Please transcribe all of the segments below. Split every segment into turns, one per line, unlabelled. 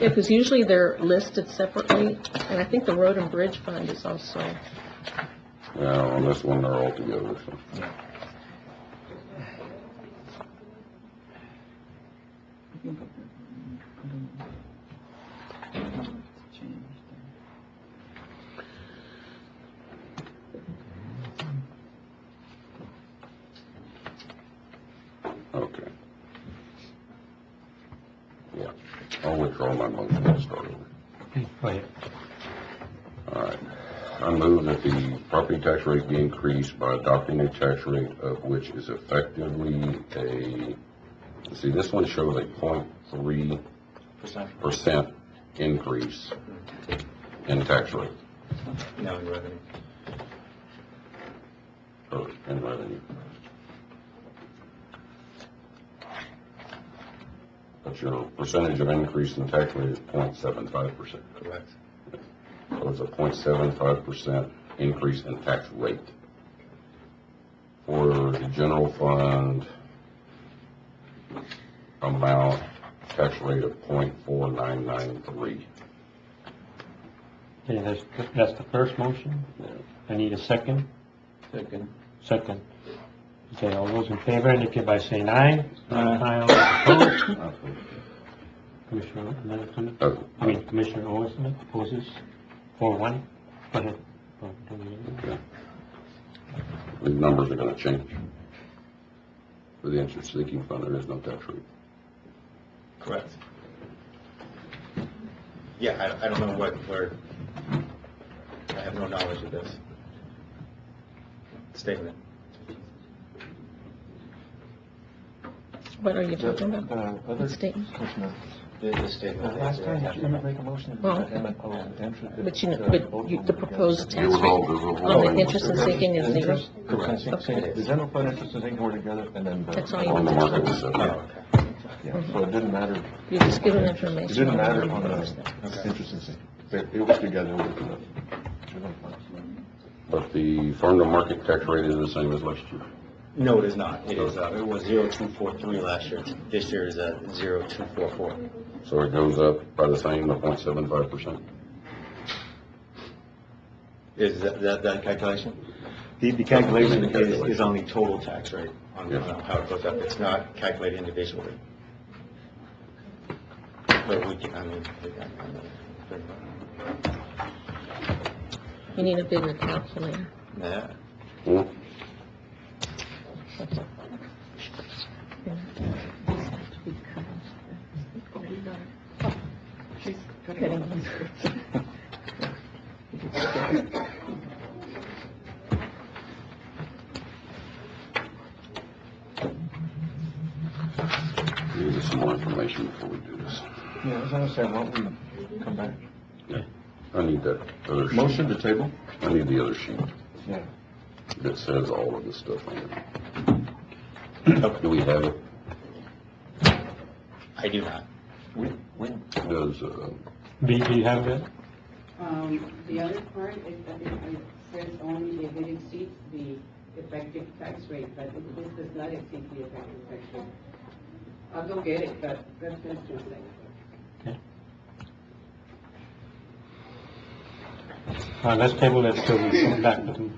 Yeah, because usually they're listed separately, and I think the road and bridge fund is also,
Yeah, on this one, they're all together, so. Okay. Yeah, I'll withdraw my motion and start over. All right. I move that the property tax rate be increased by adopting a tax rate of which is effectively a, see, this one shows a point three
Percent.
percent increase in tax rate,
No, in revenue.
or in revenue. But your percentage of increase in tax rate is point seven five percent.
Correct.
So it's a 0.75 percent increase in tax rate. For the general fund amount, tax rate of 0.4993.
Okay, that's, that's the first motion. I need a second.
Second.
Second. Okay, all those in favor indicate by saying aye. Aye. all those opposed. Commissioner Middleton,
Oh,
I mean Commissioner Olson opposes, four one. Go ahead. Oh, don't you-
okay. The numbers are gonna change. For the interest seeking fund, there is no tax rate.
Correct. Yeah, I, I don't know what, where, I have no knowledge of this statement.
what are you talking about?
Uh, other
Statement.
commissioner,
The the
the
statement.
Uh, last time, you didn't make a motion to
Well,
the M&O and interest.
But you, know, but you, the proposed tax
It was all-
rate
it was all-
on the interest and sinking is zero?
Interest, interest,
Correct.
interest, The general fund interest and income were together, and then the.
That's all you-
On the market, it's a-
Oh, okay.
Yeah, so it didn't matter,
You're just giving
it
information.
didn't matter
Okay.
on the interest and sinking. They- It was together with the general fund.
But the farm to market tax rate is the same as last year.
No, it is not. It is, uh, it was zero two four three last year. This year is a zero two four four.
So it goes up by the same, the 0.75 percent.
Is that, that, that calculation? The, the calculation is, is on the total tax rate, on, on how it goes up. It's not calculated individually. But we can, I mean, we can- I mean,
You need a bigger calculator.
yeah.
Hmm? We Need some more information before we do this.
Yeah, I was gonna say, why don't we come back?
I need that other sheet.
Motion to table?
I need the other sheet
Yeah.
that says all of this stuff on it. Do we have it?
I do not.
We, we,
Does, uh,
Do do you have that?
Um, the other part is that it it says only if it exceeds the effective tax rate, but it- this does not exceed the effective tax rate. I'll go get it, but that's just a second.
Uh, let's table it till we come back with,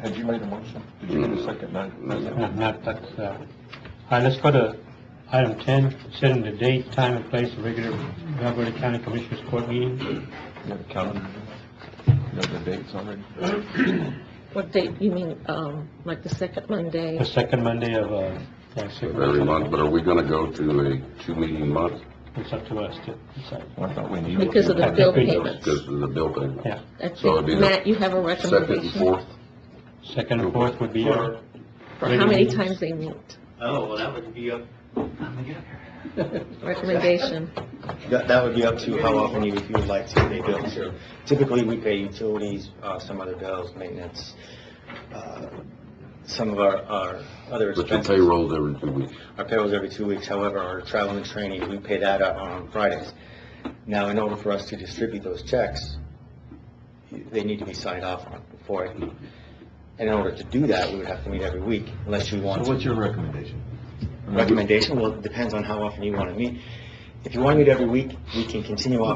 had you made a motion? Did you get a second? No.
no, not that, uh. All right, let's go to item ten, setting the date, time, and place of regular Valverde County Commissioners Court meeting.
You have a calendar? You have the dates already?
What date, you mean, um, like the second Monday?
The second Monday of, uh, yeah, second.
every month, but are we gonna go to a two-meeting month
It's up to us to decide.
I thought we needed.
Because of the bill
Because-
payments.
because of the bill payment?
Yeah,
I
So it'd be
think,
the
Matt, you have a
Second and
recommendation
fourth?
second and fourth would be our.
for how many times they meet?
Oh, well, that would be up,
Recommendation.
That, that would be up to how often you, if you would like to pay bills here. Typically, we pay utilities, uh, some other bills, maintenance, uh, some of our, our other
But your
expenses.
payroll's every two weeks.
Our payroll's every two weeks, however, our travel and training, we pay that out on Fridays. Now, in order for us to distribute those checks, they need to be signed off on before it. And in order to do that, we would have to meet every week, unless you want.
So what's your recommendation?
Recommendation, well, it depends on how often you want to meet. If you want to meet every week, we can continue on.